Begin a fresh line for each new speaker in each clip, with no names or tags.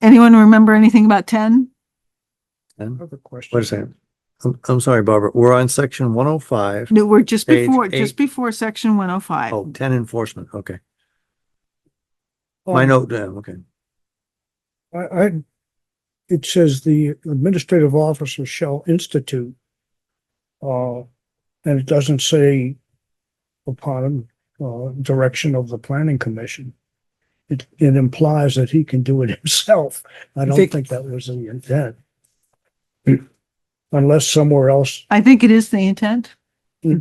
Anyone remember anything about ten?
Then,
Other question.
wait a second. I'm, I'm sorry, Barbara, we're on section one oh five.
No, we're just
Page
before, just
eight.
before section one oh five.
Oh, ten enforcement, okay.
Oh.
My note, yeah, okay.
I, Oh, I, it says the administrative officer shall institute. Uh, and it doesn't say upon, uh, direction of the planning commission. It, it implies that he can do it himself. I don't
think-
think that was the intent. Unless somewhere else,
I think it is the intent.
Hmm.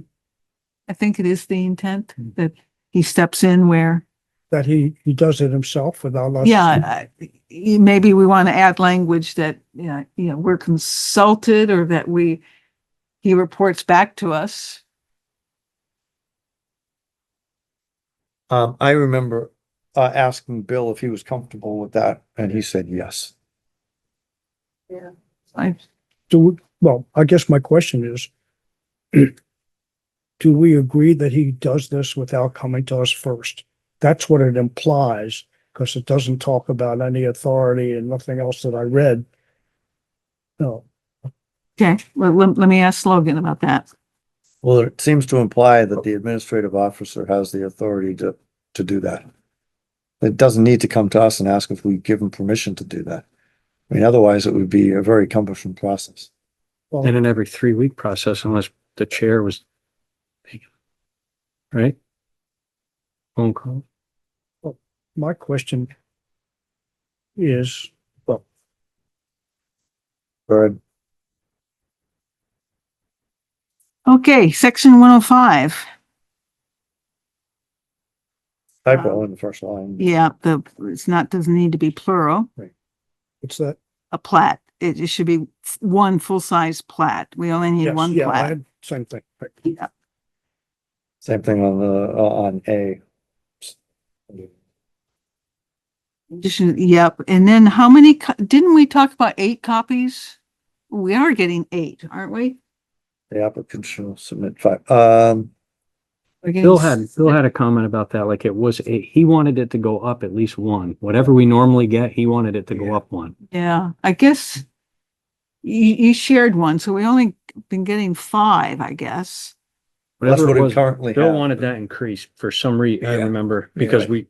I think it is the intent
Hmm.
that he steps in where,
that he, he does it himself without us.
yeah, I- y- maybe we want to add language that, you know, you know, we're consulted or that we, he reports back to us.
Um, I remember, uh, asking Bill if he was comfortable with that and he said yes.
I,
Do, we- well, I guess my question is, do we agree that he does this without coming to us first? That's what it implies, because it doesn't talk about any authority and nothing else that I read. No,
okay, well, let, let me ask Logan about that.
Well, it seems to imply that the administrative officer has the authority to, to do that. It doesn't need to come to us and ask if we give him permission to do that. I mean, otherwise it would be a very cumbersome process.
And an every three week process unless the chair was taken. Right? Phone call.
my question is,
Or
Okay, section one oh five.
typo in the first line.
Um, Yeah, the, it's not, doesn't need to be plural.
what's that?
a plat. It, it should be f- one full-size plat. We only need
Yes,
one
yeah, I
plat.
had- Same thing. Right.
Yeah.
Same thing on the, uh, on A.
Addition- Yep. And then how many, co- didn't we talk about eight copies? We are getting eight, aren't we?
The applicant shall submit five, um,
We're getting
Bill
s-
had, Bill had a comment about that, like it was, a- he wanted it to go up at least one. Whatever we normally get, he wanted it to go up one.
Yeah, I guess you, you shared one, so we only been getting five, I guess.
that's
Whatever
what
it
it
was,
currently
Bill
has.
wanted that increased for some reason, I
Yeah.
remember,
Yeah,
because
right.
we,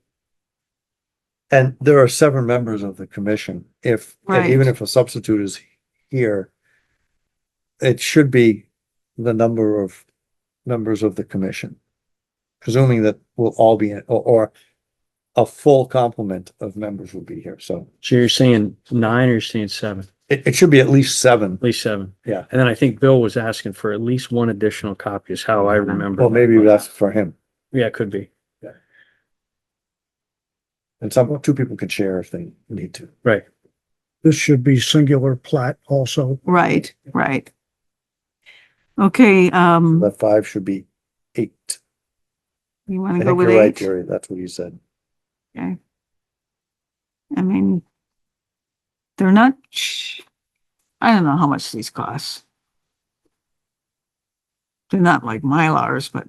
And there are seven members of the commission. If, and
Right.
even if a substitute is here, it should be the number of members of the commission, presuming that we'll all be, in- or, or a full complement of members will be here. So
so you're saying nine or you're saying seven,
it, it should be at least seven.
at least seven.
Yeah.
And then I think Bill was asking for at least one additional copy is how Oh, I remember.
Well, maybe that's for him.
Yeah, it could be.
And some, two people can share if they need to.
Right.
This should be singular plat also.
Right, right. Okay, um,
That five should be eight.
you
I
want to go
think
with
you're right,
eight?
Jerry. That's what you said.
Okay. I mean, they're not, ch- I don't know how much these cost. They're not like Mylars, but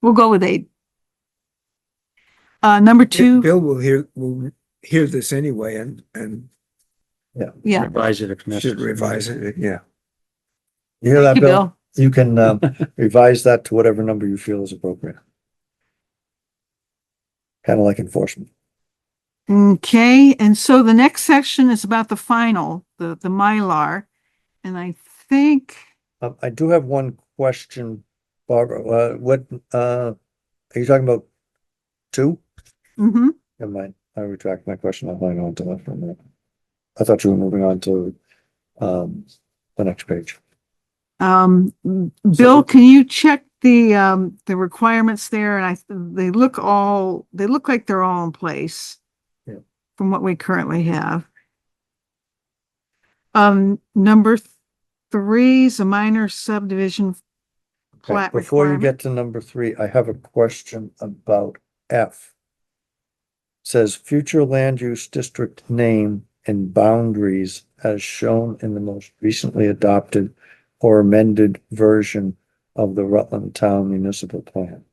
we'll go with eight. Uh, number two,
Bill will hear, will hear this anyway and, and
yeah,
Revise it if necessary.
should revise it, uh, yeah.
You hear that,
you,
Bill?
Bill,
You can, um, revise that to whatever number you feel is appropriate. Kind of like enforcement.
okay, and so the next section is about the final, the, the Mylar. And I think,
Um, I do have one question, Barbara. Uh, what, uh, are you talking about two?
hmm
Never mind. I retract my question. I'll hang on to that for a minute. I thought you were moving on to, um, the next page.
Um, Bill, can you check the, um, the requirements there? And I, they look all, they look like they're all in place.
Yeah.
From what we currently have. Um, number th- three is a minor subdivision.
Okay,
Plat
Before you
requirement.
get to number three, I have a question about F. Says future land use district name and boundaries as shown in the most recently adopted or amended version of the Rutland Town Municipal Plan.